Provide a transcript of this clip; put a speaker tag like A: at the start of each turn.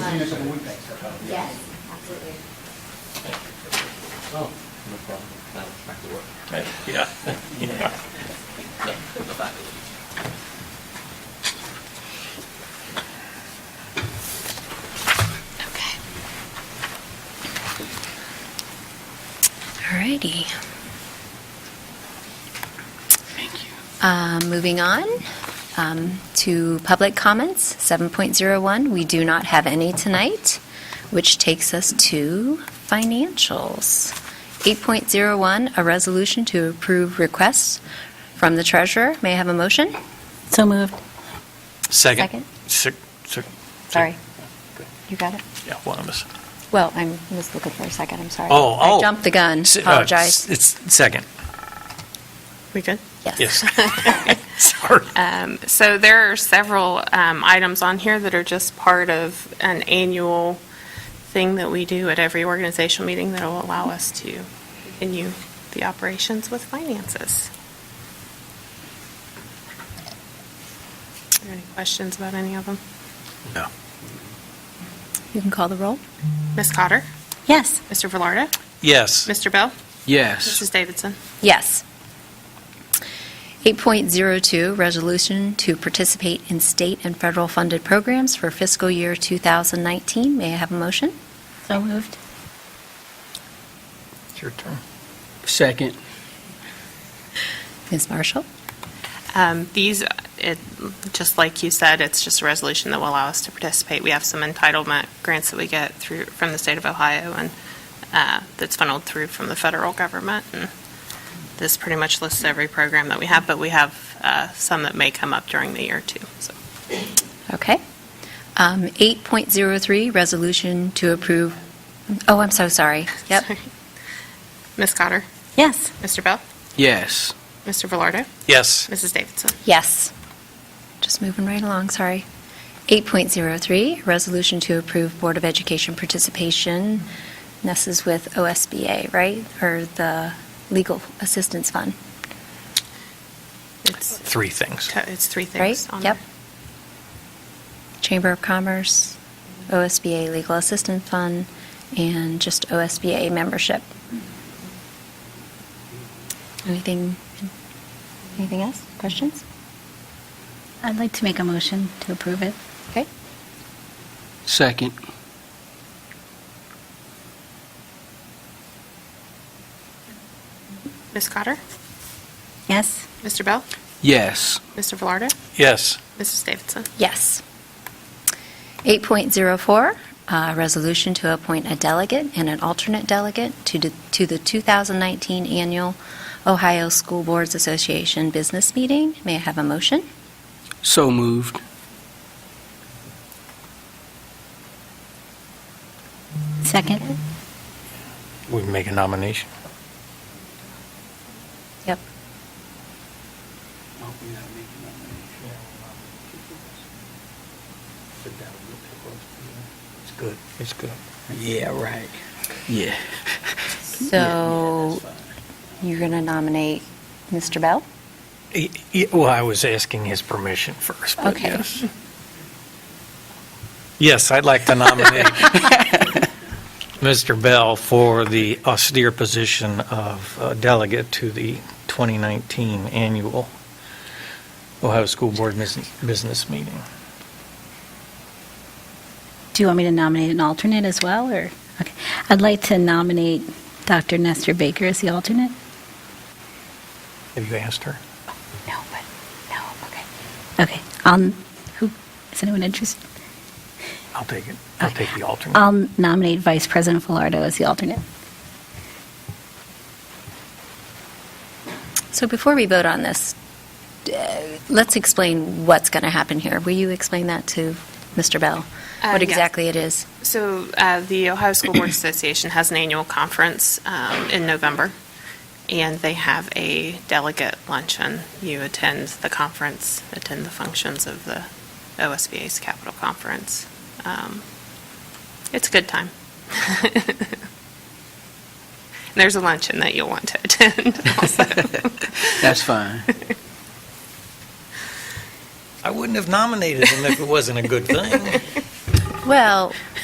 A: much.
B: seen us on the weekends.
A: Yes, absolutely.
B: Oh,
C: No problem. Now, back to work.
D: Yeah.
C: No, no faculty.
E: Okay. Alrighty. Thank you. Uh, Moving on um, to public comments, 7.01. We do not have any tonight, which takes us to financials. 8.01, a resolution to approve requests from the treasurer. May I have a motion?
F: So moved.
D: Second. Second.
E: Sorry. You got it?
D: Yeah, one of us.
E: Well, I was looking for a second, I'm sorry.
D: Oh, oh.
E: I jumped the gun,
D: S- uh,
E: apologize.
D: s- It's second,
F: We good?
D: yes. Sorry.
G: Uh, Um, So there are several um, items on here that are just part of an annual thing that we do at every organizational meeting that will allow us to continue the operations with finances. Are there any questions about any of them?
D: No.
E: You can call the roll.
G: Ms. Cotter?
F: Yes.
G: Mr. Velardo?
D: Yes.
G: Mr. Bell?
C: Yes.
G: Mrs. Davidson?
E: Yes. 8.02, resolution to participate in state and federal funded programs for fiscal year 2019. May I have a motion?
F: So moved.
D: It's your turn.
C: Second.
E: Ms. Marshall?
G: Um, These, it, just like you said, it's just a resolution that will allow us to participate. We have some entitlement grants that we get through, from the state of Ohio, and uh, that's funneled through from the federal government. And This pretty much lists every program that we have, but we have uh, some that may come up during the year, too. So
E: Okay. Um, 8.03, resolution to approve, oh, I'm so sorry. Yep.
G: Sorry. Ms. Cotter?
F: Yes.
G: Mr. Bell?
C: Yes.
G: Mr. Velardo?
D: Yes.
G: Mrs. Davidson?
E: Yes. Just moving right along, sorry. 8.03, resolution to approve Board of Education participation. And This is with OSBA, right? Or the Legal Assistance Fund,
G: It's,
D: Three things.
G: it's three
E: right?
G: things on there.
E: Yep. Chamber of Commerce, OSBA Legal Assistance Fund, and just OSBA membership. Anything, anything else? Questions?
F: I'd like to make a motion to approve it.
E: Okay.
C: Second.
G: Ms. Cotter?
F: Yes.
G: Mr. Bell?
C: Yes.
G: Mr. Velardo?
D: Yes.
G: Mrs. Davidson?
E: Yes. 8.04, uh, resolution to appoint a delegate and an alternate delegate to d- to the 2019 Annual Ohio School Boards Association Business Meeting. May I have a motion?
C: So moved.
F: Second.
D: We make a nomination.
E: Yep.
B: I'll be not making that many. Sit down, look at it. It's good.
D: It's good.
C: Yeah, right. Yeah.
E: So
B: Yeah, that's fine.
E: you're going to nominate Mr. Bell?
D: Well, I was asking his permission first, but
E: Okay.
D: yes. Yes, I'd like to nominate Mr. Bell for the austere position of uh, delegate to the 2019 annual Ohio School Board Business Business Meeting.
F: Do you want me to nominate an alternate as well, or? Okay. I'd like to nominate Dr. Nestor Baker as the alternate.
D: Have you asked her?
F: No, but, no, okay. Okay. Um, who, is anyone interested?
D: I'll take it. I'll take the alternate.
F: I'll nominate Vice President Velardo as the alternate.
E: So before we vote on this, uh, let's explain what's going to happen here. Will you explain that to Mr. Bell?
G: Uh,
E: What
G: yes.
E: exactly it is?
G: So uh, the Ohio School Board Association has an annual conference um, in November, and they have a delegate luncheon. You attend the conference, attend the functions of the OSBA's Capital Conference. Um, It's a good time. And There's a luncheon that you'll want to attend also.
C: That's fine.
D: I wouldn't have nominated him if it wasn't a good thing.
E: Well,